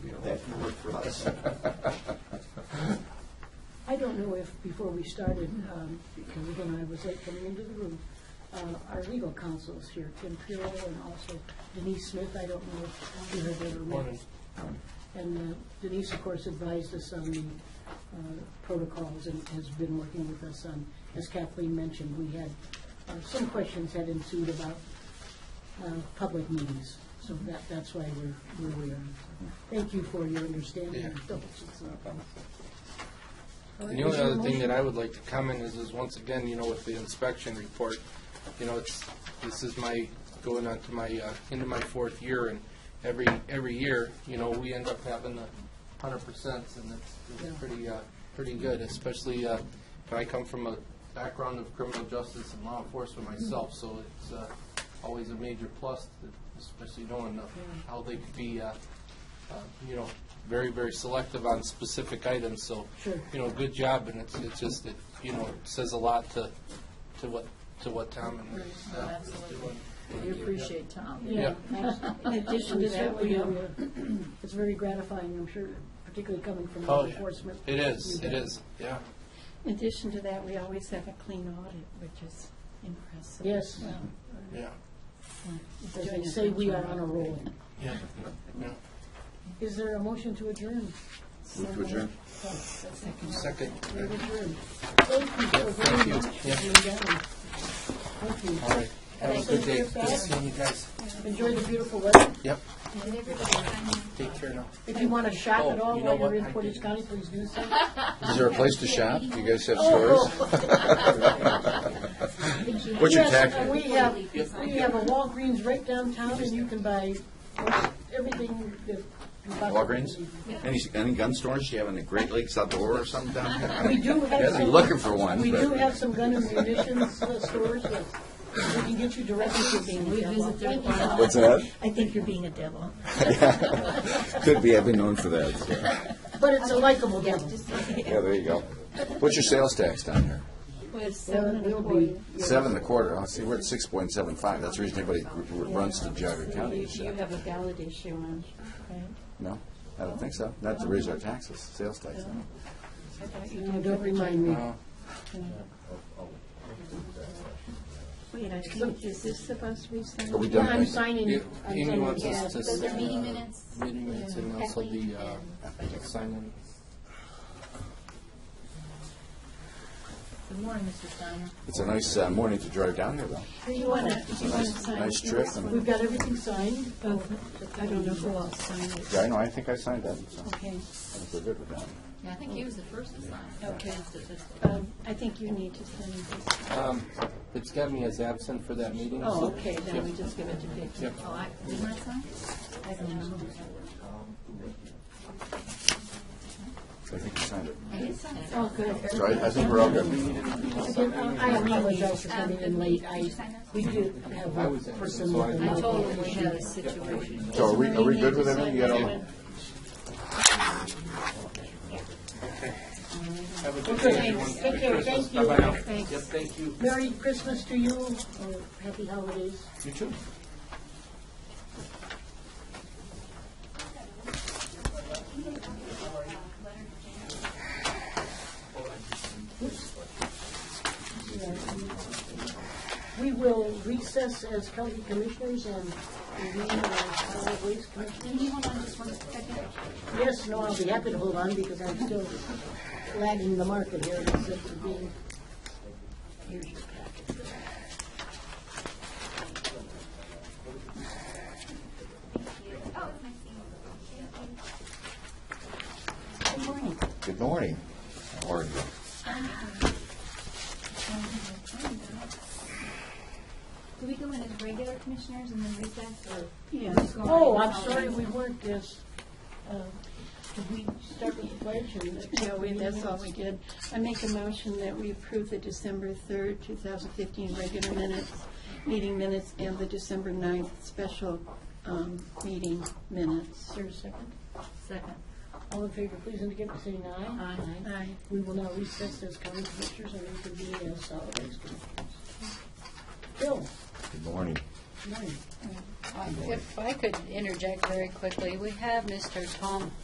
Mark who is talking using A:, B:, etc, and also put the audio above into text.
A: that can work for us.
B: I don't know if, before we started, um, because again, I was late coming into the room, uh, our legal counsels here, Tim Pirro and also Denise Smith, I don't know if you have ever met. And uh, Denise, of course, advised us on the uh, protocols and has been working with us on, as Kathleen mentioned, we had, uh, some questions had ensued about uh, public meetings, so that, that's why we're, where we are. Thank you for your understanding and diligence. All right,
C: And the
B: is
C: only
B: there a
C: other thing
B: motion?
C: that I would like to comment is, is once again, you know, with the inspection report, you know, it's, this is my, going on to my, uh, into my fourth year, and every, every year, you know, we end up having the hundred percent, and it's,
B: Yeah.
C: it's pretty, uh, pretty good, especially, uh, I come from a background of criminal justice and law enforcement
B: Mm-hmm.
C: myself, so it's, uh, always a major plus, especially knowing uh, how they could be, uh, uh, you know, very, very selective on specific items, so.
B: Sure.
C: You know, good job, and it's, it's just, it, you know, it says a lot to, to what, to what Tom and his staff is doing.
D: We appreciate Tom.
B: Yeah. In
D: addition
B: addition
D: to
B: to
D: that,
B: that, um,
D: we have-
B: it's very gratifying, I'm sure, particularly coming from
C: Oh,
B: law
C: yeah.
B: enforcement.
C: It is, it is, yeah.
D: In addition to that, we always have a clean audit, which is impressive.
B: Yes.
D: Well,
C: Yeah.
B: As
D: doing
B: they
D: a
B: say,
D: good
B: we are
D: job.
B: on a roll.
C: Yeah. Yeah.
B: Is there a motion to adjourn?
A: Move to adjourn.
C: Second.
B: We're adjourned. Thank you so very much for being down. Thank you.
C: All right. Have a good day.
B: Thank you.
C: Good seeing you guys.
B: Enjoy the beautiful weather.
C: Yep. Take care now.
B: If you want to shop at
C: Oh,
B: all
C: you know
B: while you're in
C: what? I
B: Portage
C: didn't.
B: County, please do so.
A: Is there a place to shop? Do you guys
B: Oh,
A: have stores? What's your
B: oh, Yes,
A: tax?
B: and We have, we have a Walgreens right downtown, and you can buy everything that. you possibly
A: Walgreens?
B: need.
A: Any, any gun stores? Do you have in the Great Lakes outdoor or something down here?
B: We do have
A: Yeah,
B: some.
A: I'm looking for one,
B: We
A: but-
B: do have some gun and munitions uh, stores, yes. We can get you directly to the.
D: We visit their file.
A: What's that?
D: I think you're being a devil.
A: Could be, I've been known for that. so.
B: But it's a likable devil.
A: Yeah, there you go. What's your sales tax down here?
D: With
B: Well,
D: seven
B: it
D: and
B: will
D: a
B: be.
D: quarter.
A: Seven and a quarter. I see, we're at six point seven five. That's the reason everybody r- r- runs to Jogga County.
D: You
A: is
D: you
A: that-
D: have a valid issue on, right?
A: No, I don't think so. Not to raise our taxes, sales tax. no.
D: I thought you
B: No,
D: did.
B: Don't remind me.
D: Wait, I think, is this supposed to be signed?
A: Are we
B: Yeah,
A: done?
B: I'm signing. I'm
C: Amy
B: signing.
C: wants
B: Yeah.
C: us to.
E: Those are
C: sign,
E: meeting
C: uh,
E: minutes.
C: Meeting minutes and also the, uh, sign
E: Good morning, Mr. Steiner.
A: It's a nice uh, morning to drive down here, though.
D: Do you want to, do you want to sign?
A: Nice trip.
D: this?
A: and-
B: We've got everything signed.
D: Oh, I don't know who else signed it.
A: Yeah, I know, I think I signed that, so
D: Okay.
A: I think we're good with that.
E: Yeah, I think he was the first to sign.
D: Okay.
E: Okay.
D: Um, I think you need to sign this.
C: in. Um, It's got me as absent for that meeting.
D: Oh,
C: so-
D: okay, then we just give it to Vicki.
C: Yep.
E: Oh, I, did I sign?
D: I don't know.
A: I think you signed it.
E: I did sign it.
D: Oh, good.
A: So I, I think we're all good.
B: Again, I apologize for coming in late.
E: Did you
B: I,
E: sign those?
B: we did have a person with a
E: I
B: mouth.
E: told him we had a situation.
A: So are we, are we good with everything? You got all-
C: Have a good
B: Okay,
C: day, everyone.
B: take care.
C: Merry Christmas.
B: Thank you.
C: Bye-bye now.
D: Thanks.
C: Yep, thank you.
B: Merry Christmas to you, or happy holidays.
C: You too.
B: We will recess as county commissioners and convene as solid waste commissioners.
E: Can you hold on just one second?
B: Yes, no, I'll be happy to hold on because I'm still lagging the market here in the sense of being. Here's your packet.
A: Good morning. How are you?
E: Do we go in as regular commissioners and then recess or?
D: Yeah.
B: Oh, I'm sorry, we weren't as, uh, did we start with the pledge and?
D: Yeah, we, that's all we did. I make a motion that we approve the December 3rd, 2015 regular minutes, meeting minutes, and the December 9th special um, meeting minutes.
B: Is there a second?
E: Second.
B: All in favor, please indicate by saying aye.
E: Aye.
D: Aye.
B: We will now recess as county commissioners and reconvene as solid waste commissioners. Bill,
A: Good morning.
B: good morning.
F: If I could interject very quickly, we have Mr. Tom